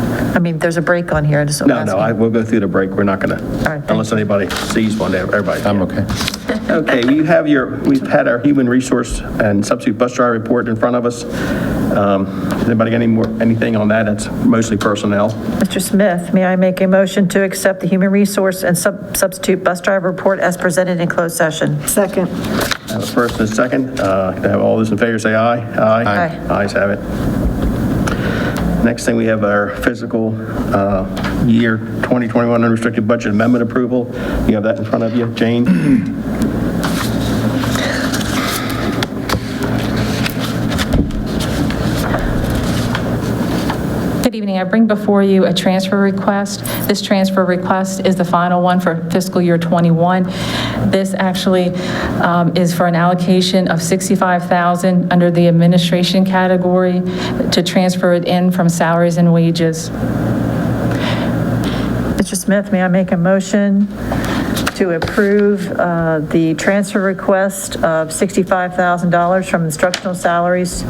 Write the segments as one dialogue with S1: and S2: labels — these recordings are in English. S1: I mean, there's a break on here, I just.
S2: No, no, I, we'll go through the break, we're not gonna,
S1: thank
S2: unless anybody sees one, everybody.
S3: I'm okay.
S2: Okay, we have your, we've had our human resource and substitute bus driver report in front of us. Um, Anybody got any more, anything on that? It's mostly personnel.
S1: Mr. Smith, may I make a motion to accept the human resource and sub- substitute bus driver report as presented in closed session?
S4: Second.
S2: I have a First and a second, Uh, can I have all those in favor say aye.
S1: Aye.
S2: Ayes have it. Next thing, we have our fiscal uh, year 2021 unrestricted budget amendment approval. You have that in front of you, Jane?
S5: Good evening. I bring before you a transfer request. This transfer request is the final one for fiscal year '21. This actually um, is for an allocation of $65,000 under the administration category to transfer it in from salaries and wages.
S1: Mr. Smith, may I make a motion to approve uh, the transfer request of $65,000 from instructional salaries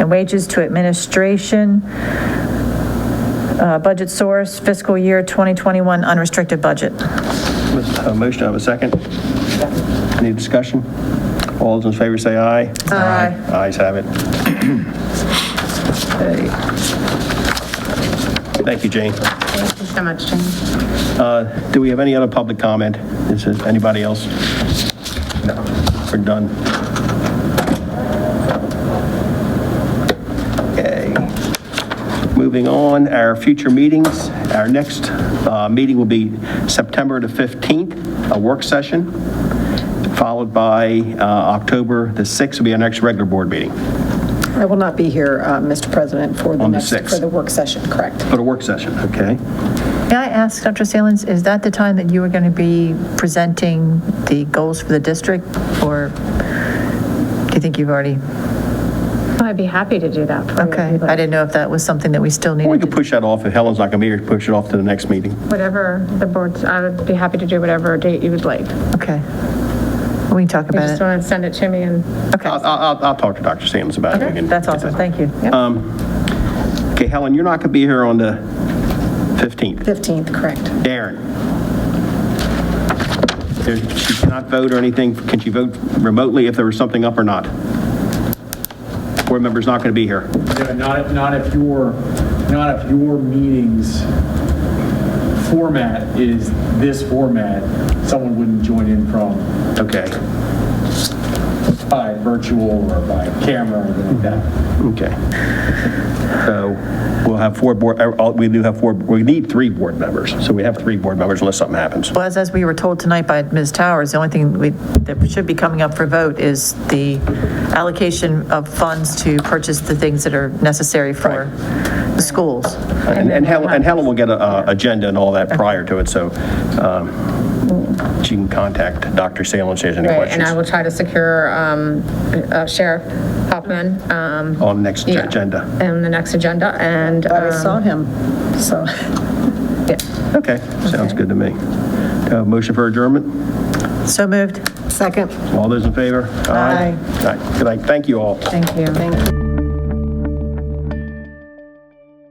S1: and wages to administration, uh, budget source, fiscal year 2021 unrestricted budget.
S2: With A motion, I have a second. Any discussion? All those in favor say aye.
S1: Aye.
S2: Ayes have it. Okay. Thank you, Jane.
S6: Thank you so much, Jane.
S2: Uh, Do we have any other public comment? Is there anybody else? No, we're done. Okay. Moving on, our future meetings. Our next uh, meeting will be September the 15th, a work session, followed by uh, October the 6th will be our next regular board meeting,
S4: I will not be here, uh, Mr. President, for the
S2: On the
S4: next,
S2: sixth.
S4: for the work session, correct?
S2: but a work session, okay?
S1: May I ask, Dr. Salins, is that the time that you were going to be presenting the goals for the district, or do you think you've already?
S6: I'd be happy to do that for you. if
S1: Okay,
S6: you'd
S1: I
S6: like.
S1: didn't know if that was something that we still
S2: Or we
S1: needed.
S2: could push that off, if Helen's not going to be here, push it off to the next meeting.
S6: Whatever the board's, I would be happy to do whatever date you would like.
S1: to- Okay. We can talk
S6: You
S1: about
S6: just
S1: it.
S6: want to send it to me and,
S1: Okay,
S2: I'll, I'll, I'll- I'll talk to Dr. Sams about it. We can
S1: that's
S2: get
S1: awesome,
S2: that.
S1: thank you.
S2: Okay, Helen, you're not going to be here on the 15th.
S4: 15th, correct.
S2: Darren? There- She cannot vote or anything, can she vote remotely if there was something up or not? Board member's not going to be here.
S7: Yeah, not, if- not if your, not if your meeting's format is this format, someone wouldn't join in from,
S2: Okay,
S7: by virtual or by camera or anything like that.
S2: okay. So we'll have four board, uh, all- we do have four, we need three board members, so we have three board members unless something happens.
S1: Well, as, as we were told tonight by Ms. Towers, the only thing we, that should be coming up for vote is the allocation of funds to purchase the things that are necessary for the schools.
S2: And and Helen, and Helen will get a- a agenda and all that prior to it, so um, she can contact Dr. Salem if she has any
S8: Right,
S2: questions.
S8: and I will try to secure um, uh, Sheriff Hoffman um,
S2: on the next
S8: Yeah.
S2: Oh, agenda.
S8: on the next agenda, and,
S4: I already
S8: um,
S4: saw him, so.
S2: Okay, sounds good to me. Uh, Motion for adjournment?
S1: So moved.
S4: Second.
S2: All those in favor? Aye. All right, good night. Thank you all.
S8: thank you.
S4: Thank you.